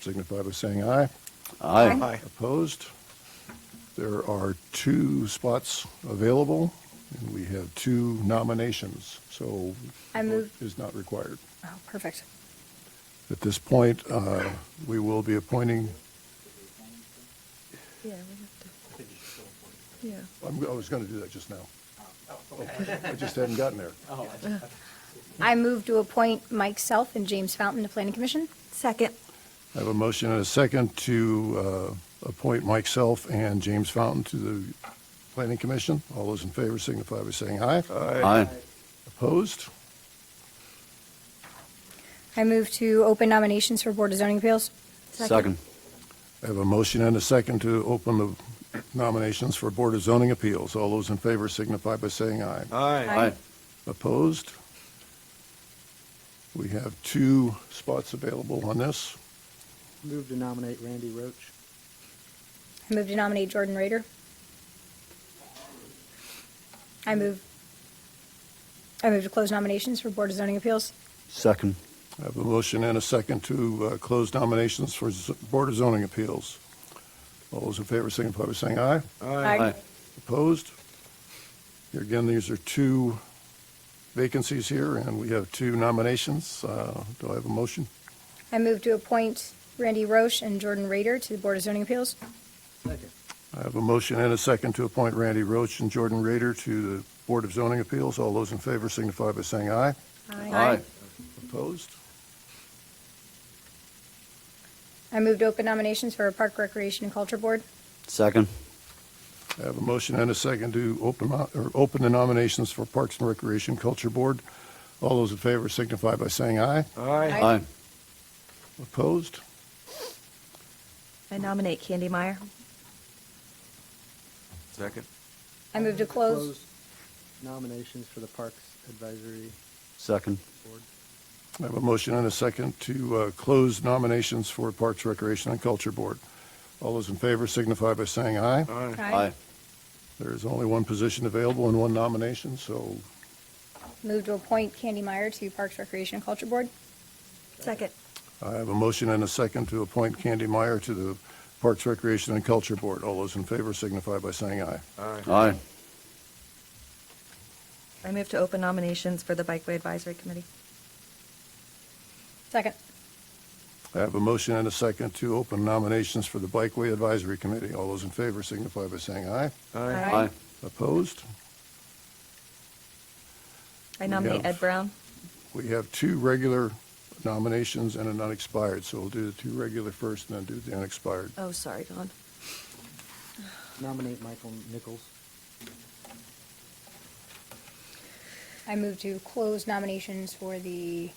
signify by saying aye. Aye. Aye. Opposed? There are two spots available, and we have two nominations, so I vote move, is not required. oh, perfect. At this point, uh, we will be appointing, Yeah, we have to. Yeah. I'm- I was going to do that just now. I just hadn't gotten there. I move to appoint Mike Self and James Fountain to Planning Commission. Second. I have a motion and a second to uh, appoint Mike Self and James Fountain to the Planning Commission. All those in favor signify by saying aye. Aye. Opposed? I move to open nominations for Board of Zoning Appeals. Second. I have a motion and a second to open the nominations for Board of Zoning Appeals. All those in favor signify by saying aye. Aye. Opposed? We have two spots available on this. Move to nominate Randy Roach. I move to nominate Jordan Rader. I move, I move to close nominations for Board of Zoning Appeals. Second. I have a motion and a second to uh, close nominations for Z- Board of Zoning Appeals. All those in favor signify by saying aye. Aye. Opposed? Here again, these are two vacancies here, and we have two nominations. Uh, Do I have a motion? I move to appoint Randy Roche and Jordan Rader to the Board of Zoning Appeals. Second. I have a motion and a second to appoint Randy Roach and Jordan Rader to the Board of Zoning Appeals. All those in favor signify by saying aye. Aye. Opposed? I move to open nominations for Park Recreation and Culture Board. Second. I have a motion and a second to open, mo- or open the nominations for Parks and Recreation Culture Board. All those in favor signify by saying aye. Aye. Aye. Opposed? I nominate Candy Meyer. Second. I move to close. Nominations for the Parks Advisory Second. Board. I have a motion and a second to uh, close nominations for Parks, Recreation, and Culture Board. All those in favor signify by saying aye. Aye. Aye. There is only one position available and one nomination, so Move to appoint Candy Meyer to Parks Recreation and Culture Board. Second. I have a motion and a second to appoint Candy Meyer to the Parks, Recreation, and Culture Board. All those in favor signify by saying aye. Aye. I move to open nominations for the Bikeway Advisory Committee. Second. I have a motion and a second to open nominations for the Bikeway Advisory Committee. All those in favor signify by saying aye. Aye. Aye. Opposed? I nominate have- Ed Brown. We have two regular nominations and an unexpired, so we'll do the two regular first and then do the unexpired. Oh, sorry, Don. Nominate Michael Nichols. I move to close nominations for the,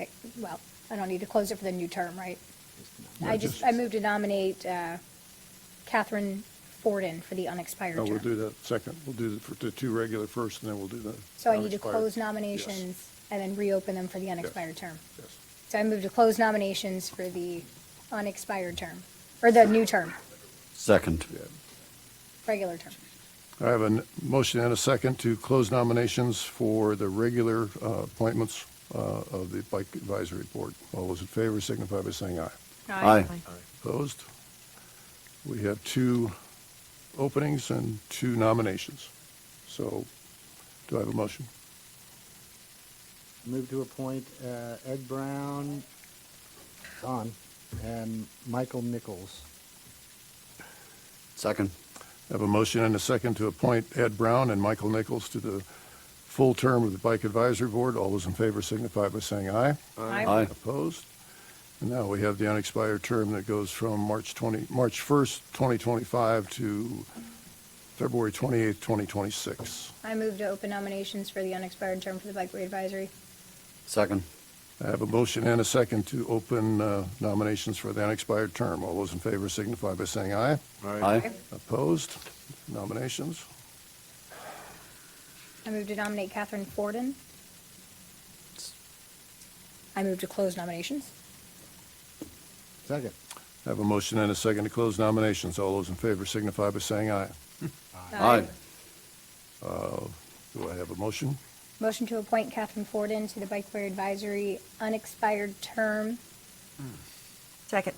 eh, well, I don't need to close it for the new term, right? Just I just, I move to nominate uh, Catherine Forden for the unexpired No, we'll term. do that second. We'll do the, for the two regular first and then we'll do the. So I need to unexpired. close nominations and then reopen them for the unexpired term. Yes. So I move to close nominations for the unexpired term, or the new term, Second. Yeah. regular term. I have a n- motion and a second to close nominations for the regular uh, appointments uh, of the Bike Advisory Board. All those in favor signify by saying aye. Aye. Opposed? We have two openings and two nominations. So do I have a motion? Move to appoint uh, Ed Brown, Don, and Michael Nichols. Second. I have a motion and a second to appoint Ed Brown and Michael Nichols to the full term of the Bike Advisory Board. All those in favor signify by saying aye. Aye. Opposed? And now we have the unexpired term that goes from March 20, March 1st, 2025 to February 28th, 2026. I move to open nominations for the unexpired term for the Bikeway Advisory. Second. I have a motion and a second to open uh, nominations for the unexpired term. All those in favor signify by saying aye. Aye. Opposed? Nominations? I move to nominate Catherine Forden. I move to close nominations. Second. I have a motion and a second to close nominations. All those in favor signify by saying aye. Aye. Do I have a motion? Motion to appoint Catherine Forden to the Bike Wear Advisory unexpired term Second.